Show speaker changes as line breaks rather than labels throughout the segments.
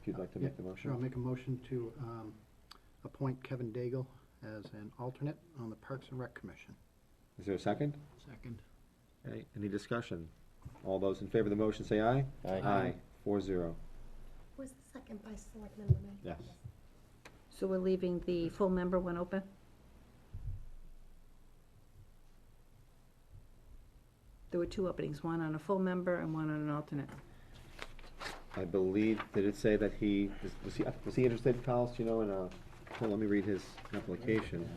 if you'd like to make the
Sure, I'll
motion.
make a motion to um, appoint Kevin Daigle as an alternate on the Parks and Rec Commission.
Is there a second?
Second.
Okay, any discussion? All those in favor of the motion say aye.
Aye.
Four zero.
Was the second by Selectman Lemay?
Yes.
So we're leaving the full member one open? There were two openings, one on a full member and one on an alternate.
I believe, did it say that he, was he, was he interested, Kyle, do you know, in a, hold, on, let me read his application.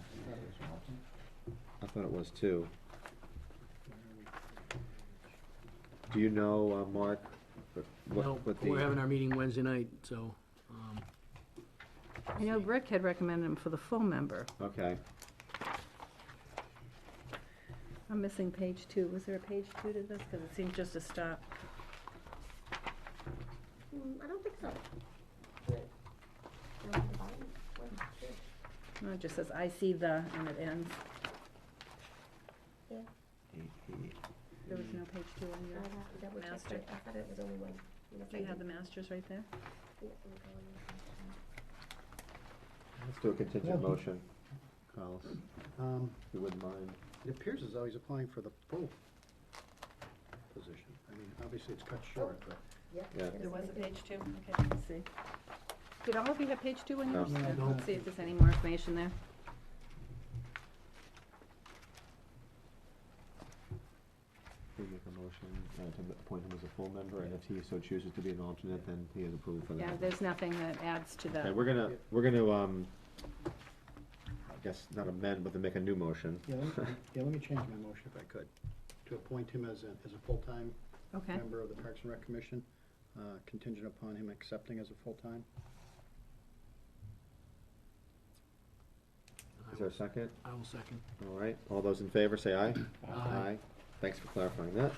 I thought it was too. Do you know, uh, Mark? what-
No,
what the-
we're having our meeting Wednesday night, so, um,
I know Rick had recommended him for the full member.
Okay,
I'm missing page two. Was there a page two to this? Because it seemed just to stop.
Mm, I don't think so.
No, it just says, I see the, and it ends. There was no page two on
I'd
your,
have to double check
Master.
that. I thought it was only one. know,
do you have the masters right there?
let's do a contingent motion, Kyle, if
Um,
you wouldn't mind.
It appears as though he's applying for the full position. I mean, obviously, it's cut short, but.
Yep.
Yeah.
it is right there.
two, okay, let's see. Did all of you have page two on
No.
yours?
No, I
Yeah,
don't.
Let's see if there's any more information there.
We make a motion uh, to appoint him as a full member, and if he so chooses to be an alternate, then he is approved for that.
Yeah, there's nothing that adds to
Okay,
the,
we're gonna, we're gonna, um, I guess not amend, but to make a new motion.
Yeah, let me- yeah, let me change my motion if I could, to appoint him as a, as a full-time
okay.
member of the Parks and Rec Commission, uh, contingent upon him accepting as a full-time.
Is there a second?
I will second.
All right, all those in favor, say aye.
Aye.
Thanks for clarifying that.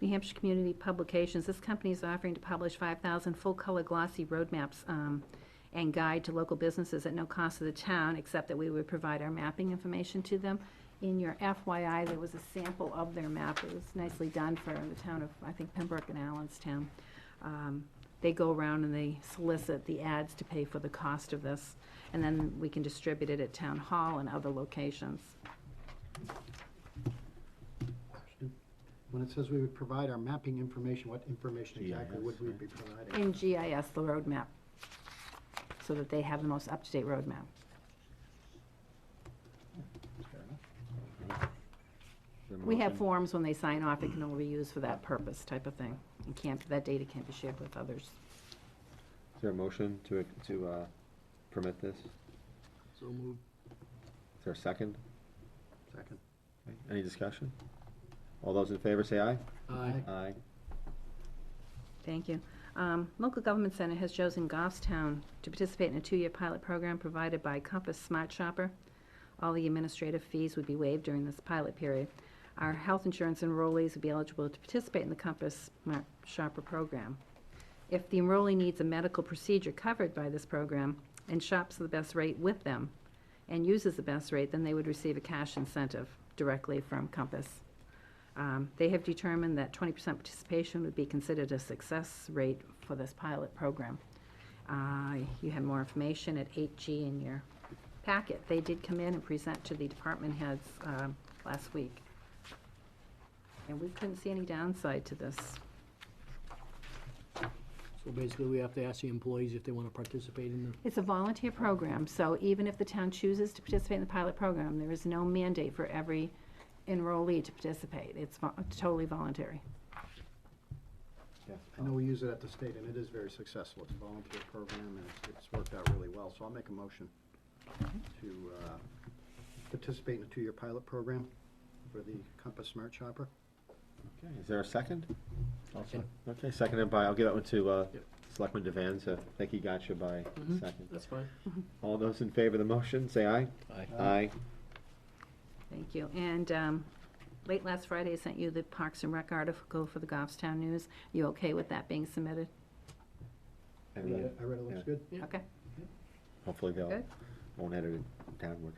New Hampshire Community Publications, this company is offering to publish 5,000 full-color glossy roadmaps um, and guide to local businesses at no cost to the town, except that we would provide our mapping information to them. In your FYI, there was a sample of their map. It was nicely done for the town of, I think, Pembroke and Allenstown. Um, They go around and they solicit the ads to pay for the cost of this, and then we can distribute it at Town Hall and other locations.
Question. When it says we would provide our mapping information, what information exactly would we be providing?
In GIS, the roadmap, so that they have the most up-to-date roadmap.
Fair enough.
We have
Motion.
forms when they sign off, it can only be used for that purpose type of thing. And can't, that data can't be shared with others.
Is there a motion to, to, uh, permit this? Is
So moved.
there a second?
Second.
Okay, Any discussion? All those in favor, say aye.
Aye.
Aye.
Thank you. Um, Local Government Center has chosen Goffstown to participate in a two-year pilot program provided by Compass Smart Shopper. All the administrative fees would be waived during this pilot period. Our health insurance enrollees would be eligible to participate in the Compass Smart Shopper program. If the enrollee needs a medical procedure covered by this program and shops the best rate with them and uses the best rate, then they would receive a cash incentive directly from Compass. Um, They have determined that 20% participation would be considered a success rate for this pilot program. Uh, You have more information at 8G in your packet. They did come in and present to the department heads um, last week. And we couldn't see any downside to this.
So basically, we have to ask the employees if they want to participate in the,
It's a volunteer program, so even if the town chooses to participate in the pilot program, there is no mandate for every enrollee to participate. It's vo- totally voluntary.
Yes.
I know we use it at the state, and it is very successful. It's a volunteer program, and it's- it's worked out really well. So I'll make a motion to uh, participate in a two-year pilot program for the Compass Smart Shopper.
Okay, is there a second?
Second.
Okay, seconded by, I'll give that one to, uh,
Yep.
Selectman Devan, so I think he got you by
Mhm.
second.
that's fine.
All those in favor of the motion, say aye.
Aye.
Aye.
Thank you. And um, late last Friday, I sent you the Parks and Rec article for the Goffstown News. You okay with that being submitted?
I
And
read
then
it, I read it looks good.
Yeah.
Okay,
hopefully they'll,
good.
won't edit it downward.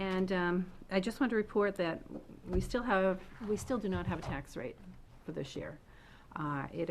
And um, I just want to report that we still have, we still do not have a tax rate for this year. Uh, It